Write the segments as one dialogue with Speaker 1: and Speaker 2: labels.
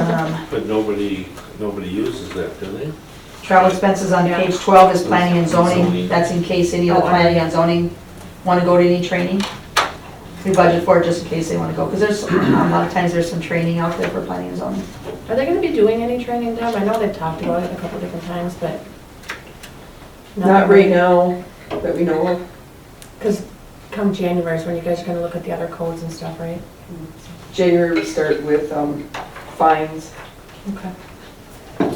Speaker 1: Um,
Speaker 2: But nobody, nobody uses that, do they?
Speaker 1: Travel expenses on page 12 is planning and zoning.
Speaker 2: Zoning.
Speaker 1: That's in case any of the
Speaker 3: Oh, I-
Speaker 1: planning and zoning want to go to any training. We budget for it just in case they want to go, because there's, a lot of times there's some training out there for planning and zoning.
Speaker 3: Are they gonna be doing any training, Deb? I know they've talked about it a couple different times, but.
Speaker 4: Not right now that we know of.
Speaker 3: Because come January is when you guys are gonna look at the other codes and stuff, right?
Speaker 4: January, we start with um, fines.
Speaker 3: Okay.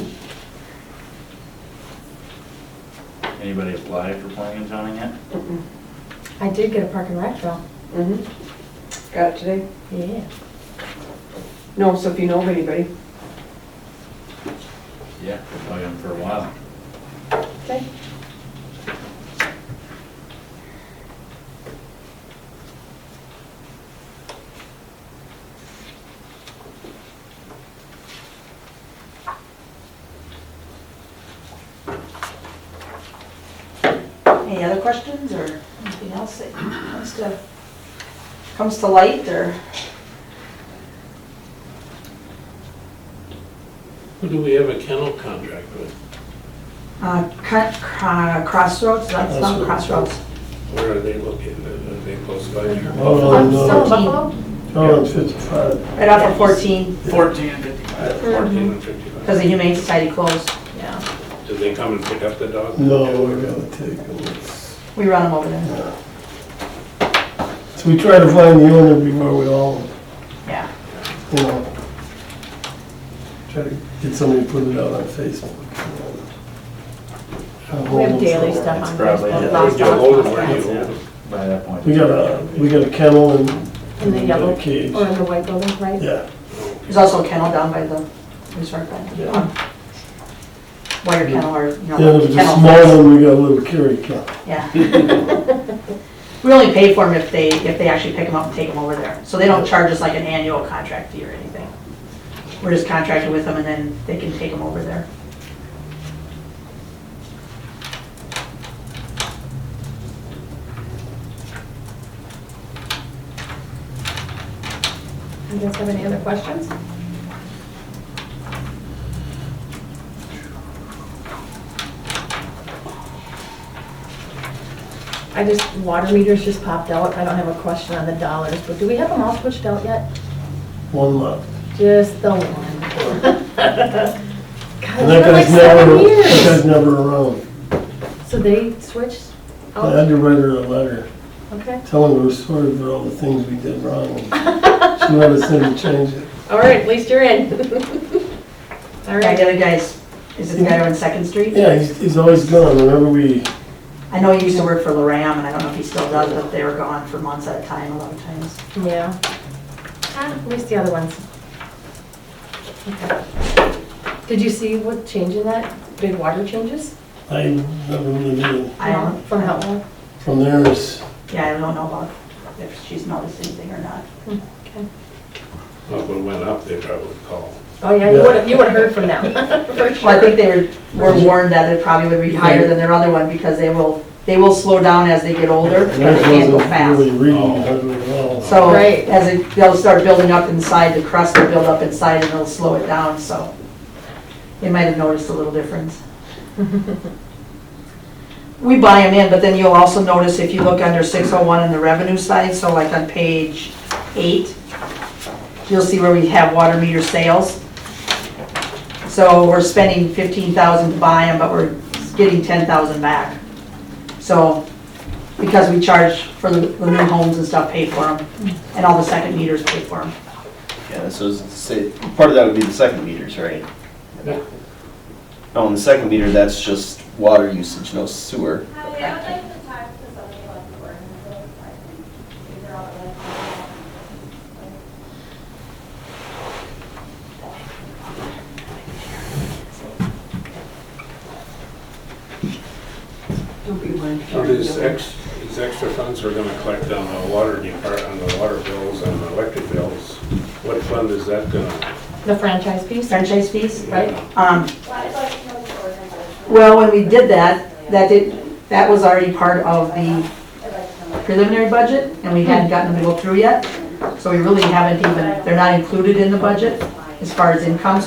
Speaker 5: Anybody apply for planning and zoning yet?
Speaker 3: I did get a park and rec though.
Speaker 4: Mhm. Got it today?
Speaker 3: Yeah.
Speaker 4: No, so if you know of anybody.
Speaker 5: Oh, Yeah. Probably them for a while.
Speaker 3: Okay.
Speaker 1: Any other questions or anything else that comes to, comes to light or?
Speaker 2: Who do we have a kennel contract with?
Speaker 1: Uh, cut- uh, Crossroads, that's not Crossroads.
Speaker 2: Where are they located? Are they close by here?
Speaker 6: Hold
Speaker 3: Um,
Speaker 6: on,
Speaker 3: so
Speaker 6: Oh, no,
Speaker 3: Buffalo?
Speaker 6: hold on, fifty-five.
Speaker 1: Right off of 14,
Speaker 5: Fourteen and fifty-five.
Speaker 2: Fourteen and fifty-five.
Speaker 1: because the Humane Society closed.
Speaker 3: Yeah.
Speaker 2: Do they come and pick up the dog?
Speaker 6: No, we gotta take a look.
Speaker 1: We run them over there.
Speaker 6: So we try to find the owner before we all,
Speaker 1: Yeah.
Speaker 6: you know, try to get somebody to put it out on Facebook. Have
Speaker 3: We have
Speaker 6: homes
Speaker 3: daily
Speaker 6: for-
Speaker 3: stuff
Speaker 5: It's
Speaker 3: on
Speaker 5: probably-
Speaker 3: Facebook.
Speaker 5: Yeah,
Speaker 2: Where'd
Speaker 3: Lost
Speaker 2: you hold
Speaker 3: dogs,
Speaker 2: them?
Speaker 3: lost
Speaker 2: Where do you
Speaker 3: dogs.
Speaker 2: hold them?
Speaker 5: By that point.
Speaker 6: We got a, we got a kennel and.
Speaker 3: In the
Speaker 6: and
Speaker 3: yellow,
Speaker 6: a Cage.
Speaker 3: or in the white building, right?
Speaker 6: Yeah,
Speaker 1: There's also a kennel down by the resort, by the
Speaker 3: Oh,
Speaker 6: Yeah.
Speaker 1: wire kennel or, you know,
Speaker 6: yeah, there's a
Speaker 1: kennel
Speaker 6: small
Speaker 1: fence.
Speaker 6: one, we got a little carry cat.
Speaker 1: Yeah. We only pay for them if they, if they actually pick them up and take them over there. So they don't charge us like an annual contract fee or anything. We're just contracted with them and then they can take them over there.
Speaker 3: You guys have any other questions? I just, water meters just popped out. I don't have a question on the dollars, but do we have them all switched out yet?
Speaker 6: one left.
Speaker 3: Just the one. God,
Speaker 6: And
Speaker 3: it's
Speaker 6: that
Speaker 3: been like
Speaker 6: guy's never,
Speaker 3: seven
Speaker 6: that guy's
Speaker 3: years.
Speaker 6: never around.
Speaker 3: So they switched
Speaker 6: I
Speaker 3: out?
Speaker 6: had to write her a letter.
Speaker 3: Okay.
Speaker 6: telling her sort of all the things we did wrong. She let us in to change it.
Speaker 3: All right, at least you're in. All
Speaker 1: That
Speaker 3: right.
Speaker 1: other guy's, is it the guy on Second Street?
Speaker 6: Yeah, he's, he's always gone whenever we,
Speaker 1: I know he used to work for Loram and I don't know if he still does, but they were gone for months at a time, a lot of times.
Speaker 3: Yeah. Ah, At least the other ones. Okay. Did you see what change in that? Big water changes?
Speaker 6: I never really did.
Speaker 1: I don't,
Speaker 3: From Helpful?
Speaker 6: From there is,
Speaker 1: yeah, I don't know about if she's noticed anything or not.
Speaker 3: Okay.
Speaker 2: Well, if it went up, they probably call.
Speaker 3: Oh, yeah, you would've, you would've heard from them, for
Speaker 1: Well, I
Speaker 3: sure.
Speaker 1: think they were were warned that it probably would be higher than their other one because they will, they will slow down as they get older and they
Speaker 6: theirs
Speaker 1: can't go
Speaker 6: wasn't really
Speaker 1: fast.
Speaker 6: reading hardly at all.
Speaker 1: So
Speaker 3: Right.
Speaker 1: as it, they'll start building up inside, the crust will build up inside and it'll slow it down, so they might have noticed a little difference. We buy them in, but then you'll also notice if you look under 601 in the revenue side, so like on page eight, you'll see where we have water meter sales. So we're spending 15,000 to buy them, but we're getting 10,000 back. So, because we charge for the the new homes and stuff, pay for them, and all the second meters pay for them.
Speaker 7: Yeah, so it's- say, part of that would be the second meters, right?
Speaker 2: Yeah.
Speaker 7: Oh, and the second meter, that's just water usage, no sewer.
Speaker 8: Hi, I would like to talk to somebody about the ordinance, so I can figure out what.
Speaker 2: So this ex, these extra funds we're gonna collect on the water depart, on the water bills, on the electric bills, what fund is that gonna?
Speaker 3: The franchise piece?
Speaker 1: Franchise fees?
Speaker 3: Right.
Speaker 1: Um,
Speaker 8: Well, I'd like to know the ordinance.
Speaker 1: Well, when we did that, that did, that was already part of the
Speaker 8: I'd like to know.
Speaker 1: preliminary budget, and we hadn't gotten them to go through yet. So we really haven't even, they're not included in the budget as far as income,